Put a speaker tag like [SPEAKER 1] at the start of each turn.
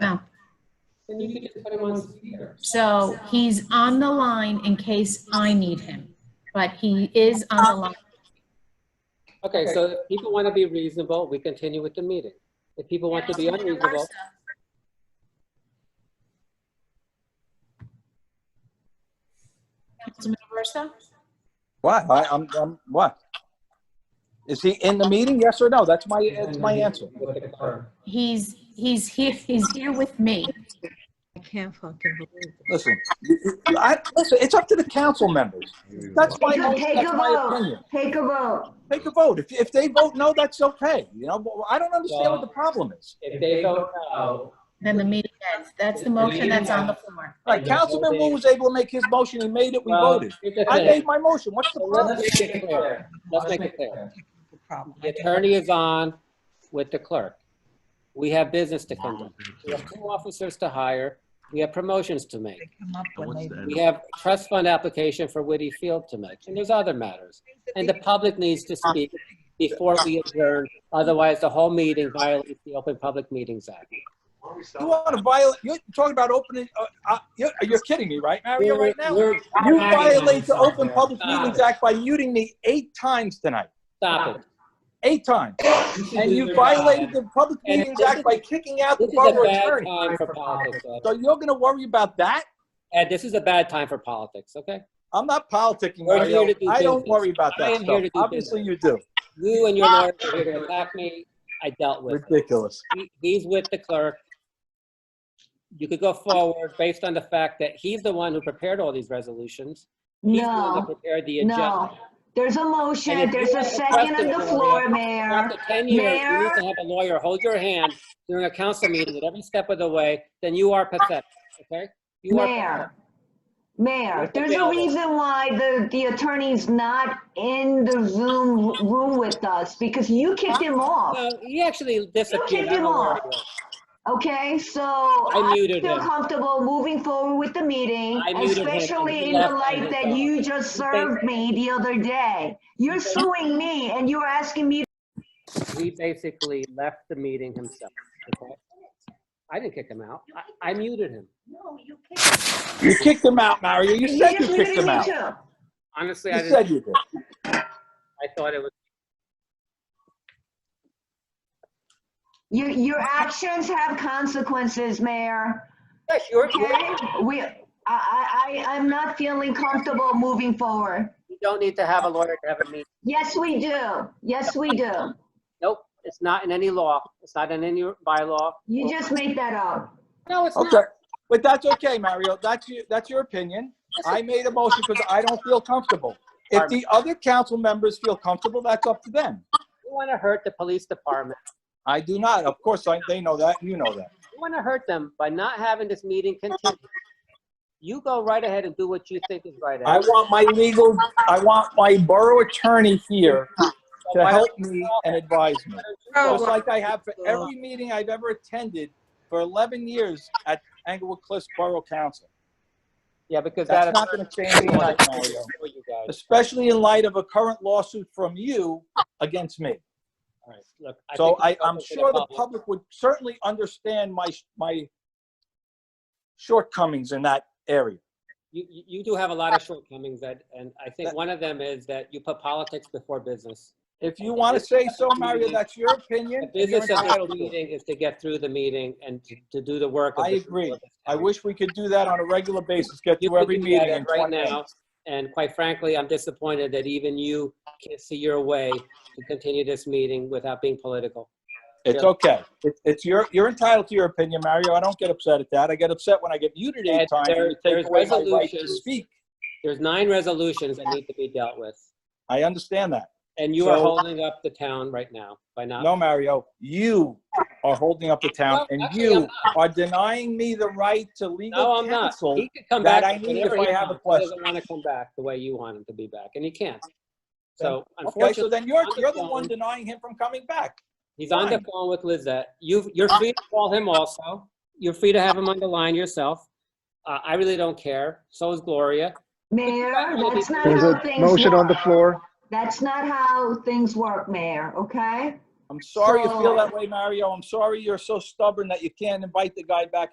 [SPEAKER 1] No.
[SPEAKER 2] Then you could just put him on speaker.
[SPEAKER 1] So he's on the line in case I need him, but he is on the line.
[SPEAKER 2] Okay, so if people want to be reasonable, we continue with the meeting. If people want to be unreasonable,
[SPEAKER 1] Councilman Aversa?
[SPEAKER 3] What? I, I'm, I'm, what? Is he in the meeting? Yes or no? That's my, that's my answer.
[SPEAKER 2] with the clerk.
[SPEAKER 1] He's, he's here, he's here with me.
[SPEAKER 4] I can't fucking believe it.
[SPEAKER 3] Listen, I, listen, it's up to the council members. That's my,
[SPEAKER 5] Take a-
[SPEAKER 3] that's my opinion.
[SPEAKER 5] Take a vote.
[SPEAKER 3] Take a vote. If, if they vote no, that's okay. You know, but I don't understand what the problem is.
[SPEAKER 2] If they vote no,
[SPEAKER 1] Then the meeting ends. That's the motion that's on the floor.
[SPEAKER 3] Like Councilman Wu was able to make his motion. He made it. We
[SPEAKER 2] well,
[SPEAKER 3] voted.
[SPEAKER 2] here's the
[SPEAKER 3] I
[SPEAKER 2] thing.
[SPEAKER 3] made my motion. What's the
[SPEAKER 2] So
[SPEAKER 3] problem?
[SPEAKER 2] Let's make it clear. Let's make it clear.
[SPEAKER 4] The problem.
[SPEAKER 2] The attorney is on with the clerk. We have business to conduct. We have two officers to hire. We have promotions to make.
[SPEAKER 4] They come up when they.
[SPEAKER 2] We have trust fund application for Whitty Field to make, and there's other matters. And the public needs to speak before we adjourn, otherwise the whole meeting violates the Open Public Meetings Act.
[SPEAKER 3] You want to violate, you're talking about opening, uh, uh, you're, you're kidding me, right, Mario, right now?
[SPEAKER 2] We're- we're-
[SPEAKER 3] You violate the Open
[SPEAKER 2] Stop
[SPEAKER 3] Public
[SPEAKER 2] it.
[SPEAKER 3] Meetings Act by muting me eight times tonight,
[SPEAKER 2] Stop it.
[SPEAKER 3] eight times. And you violated the Public
[SPEAKER 2] And
[SPEAKER 3] Meetings
[SPEAKER 2] this
[SPEAKER 3] Act
[SPEAKER 2] is-
[SPEAKER 3] by kicking out the
[SPEAKER 2] This is a
[SPEAKER 3] borough
[SPEAKER 2] bad
[SPEAKER 3] attorney.
[SPEAKER 2] time for politics, Ed.
[SPEAKER 3] So you're going to worry about that?
[SPEAKER 2] Ed, this is a bad time for politics, okay?
[SPEAKER 3] I'm not politicking,
[SPEAKER 2] We're here
[SPEAKER 3] Mario.
[SPEAKER 2] to do
[SPEAKER 3] I don't
[SPEAKER 2] business.
[SPEAKER 3] worry about
[SPEAKER 2] I
[SPEAKER 3] that
[SPEAKER 2] am here
[SPEAKER 3] stuff.
[SPEAKER 2] to do
[SPEAKER 3] Obviously you do.
[SPEAKER 2] You and your lawyers are here to attack me. I dealt with it.
[SPEAKER 3] Ridiculous.
[SPEAKER 2] he- he's with the clerk. You could go forward based on the fact that he's the one who prepared all these resolutions. He's the one that
[SPEAKER 5] No,
[SPEAKER 2] prepared the agenda.
[SPEAKER 5] no. There's a
[SPEAKER 2] And
[SPEAKER 5] motion,
[SPEAKER 2] if
[SPEAKER 5] there's
[SPEAKER 2] you
[SPEAKER 5] a
[SPEAKER 2] have a
[SPEAKER 5] second
[SPEAKER 2] question
[SPEAKER 5] on the
[SPEAKER 2] for
[SPEAKER 5] floor,
[SPEAKER 2] that,
[SPEAKER 5] Mayor.
[SPEAKER 2] After 10 years, you need
[SPEAKER 5] Mayor?
[SPEAKER 2] to have a lawyer hold your hand during a council meeting at every step of the way, then you are pathetic, okay? You are
[SPEAKER 5] Mayor,
[SPEAKER 2] pathetic.
[SPEAKER 5] Mayor,
[SPEAKER 2] Mr.
[SPEAKER 5] there's a
[SPEAKER 2] Bill.
[SPEAKER 5] reason why the, the attorney's not in the Zoom room with us because you kicked him off,
[SPEAKER 2] No, he actually disappeared.
[SPEAKER 5] kicked
[SPEAKER 2] I don't
[SPEAKER 5] him
[SPEAKER 2] know where
[SPEAKER 5] off.
[SPEAKER 2] he was.
[SPEAKER 5] okay? So
[SPEAKER 2] I
[SPEAKER 5] I
[SPEAKER 2] muted
[SPEAKER 5] feel
[SPEAKER 2] him.
[SPEAKER 5] comfortable moving forward with the meeting,
[SPEAKER 2] I muted him, and he
[SPEAKER 5] especially in the
[SPEAKER 2] left on his
[SPEAKER 5] light that
[SPEAKER 2] own.
[SPEAKER 5] you just served me the other day. You're suing me and you're asking me
[SPEAKER 2] He basically left the meeting himself, okay? I didn't kick him out. I, I muted him.
[SPEAKER 3] You kicked him out, Mario. You said you
[SPEAKER 5] just
[SPEAKER 3] kicked
[SPEAKER 5] muted
[SPEAKER 3] him
[SPEAKER 5] me
[SPEAKER 3] out. You
[SPEAKER 5] too.
[SPEAKER 2] Honestly, I didn't,
[SPEAKER 3] said you did.
[SPEAKER 2] I thought it was
[SPEAKER 5] Your, your actions have consequences, Mayor.
[SPEAKER 2] Yes, you're, you're-
[SPEAKER 5] Okay? We, I, I, I- I'm not feeling comfortable moving forward.
[SPEAKER 2] you don't need to have a lawyer to have a meeting.
[SPEAKER 5] Yes, we do. Yes, we do.
[SPEAKER 2] Nope, it's not in any law. It's not in any bylaw.
[SPEAKER 5] You just made that up.
[SPEAKER 2] No, it's
[SPEAKER 3] Okay,
[SPEAKER 2] not.
[SPEAKER 3] but that's okay, Mario. That's your, that's your opinion. I made a motion because I don't feel comfortable. If the other council members feel comfortable, that's up to them.
[SPEAKER 2] You want to hurt the police department.
[SPEAKER 3] I do not. Of course, I, they know that. You know that.
[SPEAKER 2] You want to hurt them by not having this meeting continue. You go right ahead and do what you think is right.
[SPEAKER 3] I
[SPEAKER 2] Ed.
[SPEAKER 3] want my legal, I want my borough attorney here to help me and advise me.
[SPEAKER 2] Oh,
[SPEAKER 4] Oh,
[SPEAKER 3] Just like I have for every meeting I've ever attended for 11 years at Englewood Cliffs Borough Council.
[SPEAKER 2] Yeah, because that.
[SPEAKER 3] That's not going to change
[SPEAKER 2] attorney-
[SPEAKER 3] tonight, Mario.
[SPEAKER 2] For you guys.
[SPEAKER 3] Especially in light of a current lawsuit from you against me.
[SPEAKER 2] All right, look, I
[SPEAKER 3] So
[SPEAKER 2] think
[SPEAKER 3] I,
[SPEAKER 2] it's
[SPEAKER 3] I'm
[SPEAKER 2] open to
[SPEAKER 3] sure the public would certainly understand my, my shortcomings in that area.
[SPEAKER 2] You, you you do have a lot of shortcomings, Ed, and I think one of them is that you put politics before business.
[SPEAKER 3] If you want to say so, Mario, that's your opinion.
[SPEAKER 2] The
[SPEAKER 3] and you're
[SPEAKER 2] business of
[SPEAKER 3] entitled
[SPEAKER 2] this
[SPEAKER 3] to it.
[SPEAKER 2] meeting is to get through the meeting and to- to do the work. of
[SPEAKER 3] I
[SPEAKER 2] the people
[SPEAKER 3] agree.
[SPEAKER 2] of this
[SPEAKER 3] I
[SPEAKER 2] town.
[SPEAKER 3] wish we could do that on a regular basis, get
[SPEAKER 2] You
[SPEAKER 3] through every
[SPEAKER 2] could do that
[SPEAKER 3] meeting in
[SPEAKER 2] right
[SPEAKER 3] 20
[SPEAKER 2] now.
[SPEAKER 3] minutes.
[SPEAKER 2] And quite frankly, I'm disappointed that even you can't see your way to continue this meeting without being political.
[SPEAKER 3] It's
[SPEAKER 2] Yeah.
[SPEAKER 3] okay. It's, it's your, you're entitled to your opinion, Mario. I don't get upset at that. I get upset when I get muted
[SPEAKER 2] Ed,
[SPEAKER 3] eight times
[SPEAKER 2] there-
[SPEAKER 3] and you take
[SPEAKER 2] there's
[SPEAKER 3] away my right to
[SPEAKER 2] resolutions.
[SPEAKER 3] speak.
[SPEAKER 2] There's nine resolutions that need to be dealt with,
[SPEAKER 3] I understand that.
[SPEAKER 2] and you are
[SPEAKER 3] So-
[SPEAKER 2] holding up the town right now by not.
[SPEAKER 3] No, Mario, you are holding up the town
[SPEAKER 2] No,
[SPEAKER 3] and
[SPEAKER 2] actually, I'm
[SPEAKER 3] you
[SPEAKER 2] not.
[SPEAKER 3] are denying me the right to
[SPEAKER 2] No,
[SPEAKER 3] legal
[SPEAKER 2] I'm not.
[SPEAKER 3] counsel.
[SPEAKER 2] He could come
[SPEAKER 3] that
[SPEAKER 2] back
[SPEAKER 3] I need if
[SPEAKER 2] whenever
[SPEAKER 3] I
[SPEAKER 2] he
[SPEAKER 3] have a
[SPEAKER 2] wants. He doesn't want to come back the way you want him to be back, and he can't. So
[SPEAKER 3] Okay, so
[SPEAKER 2] unfortunately,
[SPEAKER 3] then you're,
[SPEAKER 2] I'm
[SPEAKER 3] you're the one
[SPEAKER 2] fine.
[SPEAKER 3] denying him from coming back.
[SPEAKER 2] he's on the
[SPEAKER 3] fine.
[SPEAKER 2] phone with Lizette. You, you're free to call him also. You're free to have him on the line yourself. Uh, I really don't care. So is Gloria.
[SPEAKER 5] Mayor, that's not
[SPEAKER 6] There's
[SPEAKER 5] how
[SPEAKER 6] a
[SPEAKER 5] things
[SPEAKER 6] motion on the
[SPEAKER 5] work.
[SPEAKER 6] floor.
[SPEAKER 5] That's not how things work, Mayor, okay?
[SPEAKER 3] I'm sorry you feel that way, Mario. I'm sorry you're so stubborn that you can't invite the guy back in.